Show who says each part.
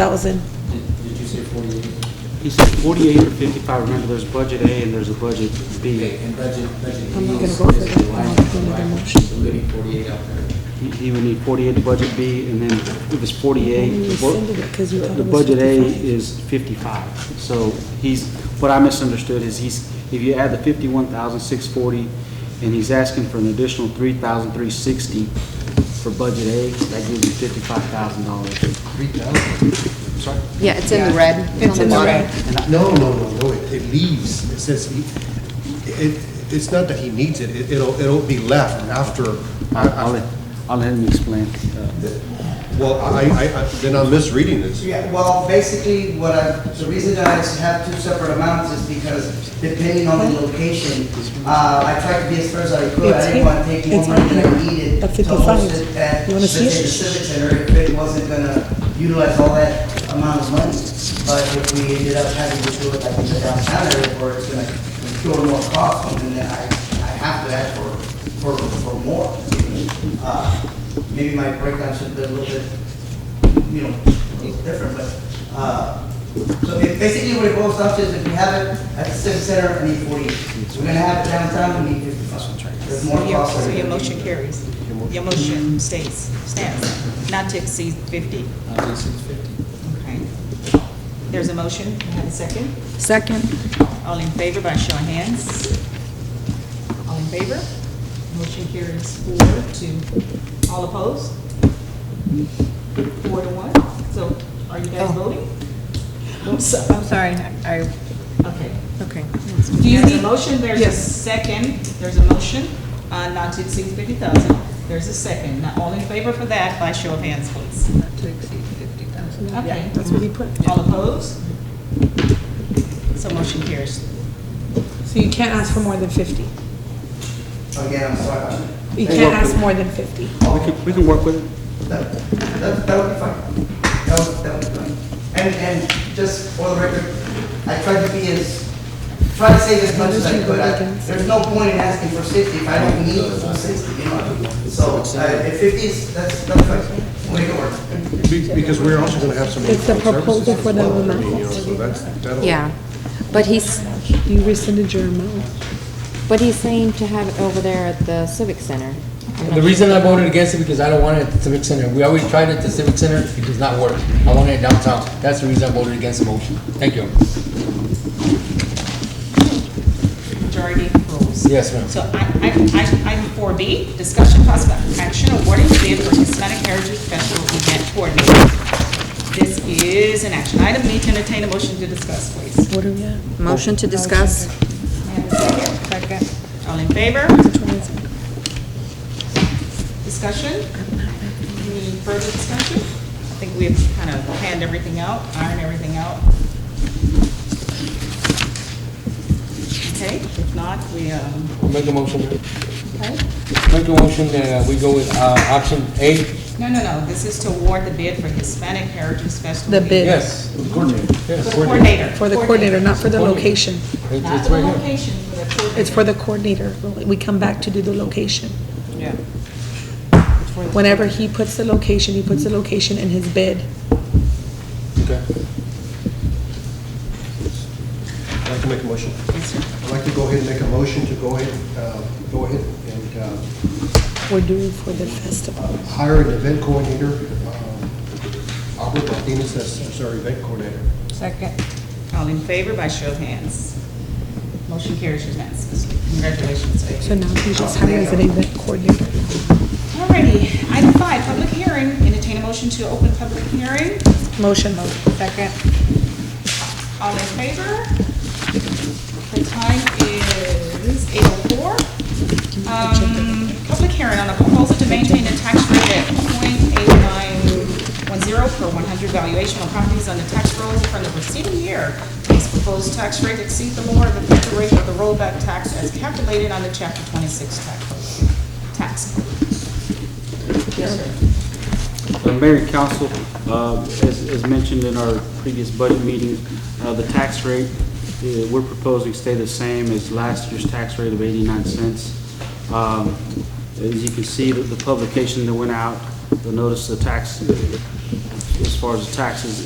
Speaker 1: thousand.
Speaker 2: Did did you say 48?
Speaker 3: He said 48 or 55, remember, there's budget A and there's a budget
Speaker 2: Okay,
Speaker 3: B.
Speaker 2: and budget, budget
Speaker 1: I'm not
Speaker 2: B is
Speaker 1: gonna vote
Speaker 2: is
Speaker 1: for
Speaker 2: the
Speaker 1: that.
Speaker 2: line,
Speaker 1: I'm
Speaker 2: item,
Speaker 1: gonna make a
Speaker 2: right?
Speaker 1: motion.
Speaker 2: So we need 48 out there.
Speaker 3: He- He would need 48 to budget B, and then if it's 48,
Speaker 1: You
Speaker 3: the bu-
Speaker 1: rescinded it 'cause you thought
Speaker 3: the
Speaker 1: it was
Speaker 3: budget A
Speaker 1: 55.
Speaker 3: is 55. So he's, what I misunderstood is he's, if you add the 51,640, and he's asking for an additional 3,360 for budget A, that gives you $55,000.
Speaker 4: 3,000? Sorry?
Speaker 5: Yeah, it's in the red.
Speaker 1: It's in the red.
Speaker 3: And I-
Speaker 4: No, no, no, no, it it leaves, it says, he- it, it's not that he needs it, It- it'll, it'll be left after,
Speaker 3: I'll I'll let, I'll let him explain. Uh,
Speaker 4: well, I, I, I- then I'm misreading this.
Speaker 6: Yeah, well, basically, what I, the reason that I have two separate amounts is because depending on the location, uh, I tried to be as fair as I could.
Speaker 1: It's
Speaker 6: I
Speaker 1: here.
Speaker 6: didn't want to take more
Speaker 1: It's
Speaker 6: money than I
Speaker 1: here.
Speaker 6: needed
Speaker 1: At
Speaker 6: to host
Speaker 1: 55.
Speaker 6: it at
Speaker 1: You
Speaker 6: the
Speaker 1: wanna see it?
Speaker 6: Civic Center if it wasn't gonna utilize all that amount of money. But if we ended up having to do it like in the downtown area where it's gonna incur more costs, then I, I have to ask for, for, for more. Uh, Maybe my breakdown should be a little bit you know, it's different, but, uh, so it- basically what it boils down to is if we have it at the civic center, we need forty. We're gonna have it downtown, we need fifty. There's more
Speaker 7: So your,
Speaker 6: costs.
Speaker 7: so your motion carries. Your motion stays, stands, not to exceed 50.
Speaker 2: Not to exceed 50.
Speaker 7: Okay. There's a motion, Can I have a second.
Speaker 5: Second.
Speaker 7: All in favor by show of hands. All in favor? Motion carries four to, all opposed? Four to one. So are you guys voting?
Speaker 5: I'm so- I'm sorry, I,
Speaker 7: Okay.
Speaker 5: okay.
Speaker 7: Do you need? There's a motion, there's a
Speaker 5: Yes.
Speaker 7: second, there's a motion, uh, not to exceed fifty thousand, there's a second. Now, all in favor for that, by show of hands, please.
Speaker 5: Not to exceed 50,000.
Speaker 7: Okay.
Speaker 1: That's what he put.
Speaker 7: All opposed? So motion carries.
Speaker 1: So you can't ask for more than fifty.
Speaker 6: Again, I'm sorry. about
Speaker 1: You can't ask more than fifty.
Speaker 3: Oh, We can, we can work with it.
Speaker 6: That, that, that would be fine. That would, that would be fine. And, and just for the record, I tried to be as, try to save as much as I could. I- There's no point in asking for sixty if I don't need the full sixty, you know? So, uh, if fifty is, that's, that's fine. Way to work.
Speaker 4: Be- Because we're also gonna have some
Speaker 1: It's a
Speaker 4: in-kind services
Speaker 1: proposal
Speaker 4: as
Speaker 1: for the
Speaker 4: well. I
Speaker 1: amount.
Speaker 4: mean, you know, So that's, that'll.
Speaker 5: Yeah, but he's,
Speaker 1: You rescinded your amount.
Speaker 5: but he's saying to have it over there at the Civic Center. I'm
Speaker 8: The
Speaker 5: not-
Speaker 8: reason I voted against it because I don't want it at the Civic Center. We already tried it at the Civic Center, it does not work. I want it downtown. That's the reason I voted against the motion. Thank you.
Speaker 7: Majority rules.
Speaker 8: Yes, ma'am.
Speaker 7: So I, I, I, item four B, discussion possible action awarding bid for Hispanic Heritage Festival Event Coordinator. This is an action item, need to entertain a motion to discuss, please.
Speaker 1: What are we at?
Speaker 5: Motion to discuss? Second.
Speaker 7: All in favor? Discussion? Any further discussion? I think we've kind of panned everything out, ironed everything out. Okay, if not, we, um,
Speaker 8: Make a motion.
Speaker 7: okay.
Speaker 8: Make a motion that we go with uh, option A.
Speaker 7: No, no, no, this is to award the bid for Hispanic Heritage Festival.
Speaker 1: The bid.
Speaker 8: Yes.
Speaker 7: For the
Speaker 8: Yes.
Speaker 7: coordinator.
Speaker 1: For the coordinator, not for the location.
Speaker 8: It-
Speaker 7: Not
Speaker 8: It's
Speaker 7: the
Speaker 8: right here.
Speaker 7: location, for the coordinator.
Speaker 1: It's for the coordinator. We come back to do the location.
Speaker 7: Yeah.
Speaker 1: Whenever he puts the location, he puts the location in his bid.
Speaker 8: Okay.
Speaker 4: I'd like to make a motion.
Speaker 7: Yes, sir.
Speaker 4: I'd like to go ahead and make a motion to go ahead, uh, go ahead and uh,
Speaker 1: We're doing for the festival.
Speaker 4: hire an event coordinator, um, Albert Martinez, that's that's our event coordinator.
Speaker 5: Second.
Speaker 7: All in favor by show of hands. Motion carries unanimously. Congratulations, Faith.
Speaker 1: So now he's just hired as an event coordinator.
Speaker 7: Alrighty, item five, public hearing. Entertain a motion to open public hearing.
Speaker 1: Motion.
Speaker 7: Second. All in favor? The time is eight oh four. Um, public hearing on a proposal to maintain a tax rate at point eight nine one zero per one hundred valuation on properties on the tax rolls from the preceding year. This proposed tax rate exceed the lower of the effective rate of the rollback tax as calculated on the chapter twenty-six tax. Tax. Yes, sir.
Speaker 3: Uh, Mayor and council, uh, as as mentioned in our previous budget meeting, uh, the tax rate, uh, we're proposing stay the same as last year's tax rate of 89 cents. Um, As you can see, the- the publication that went out, the notice of tax, as far as the taxes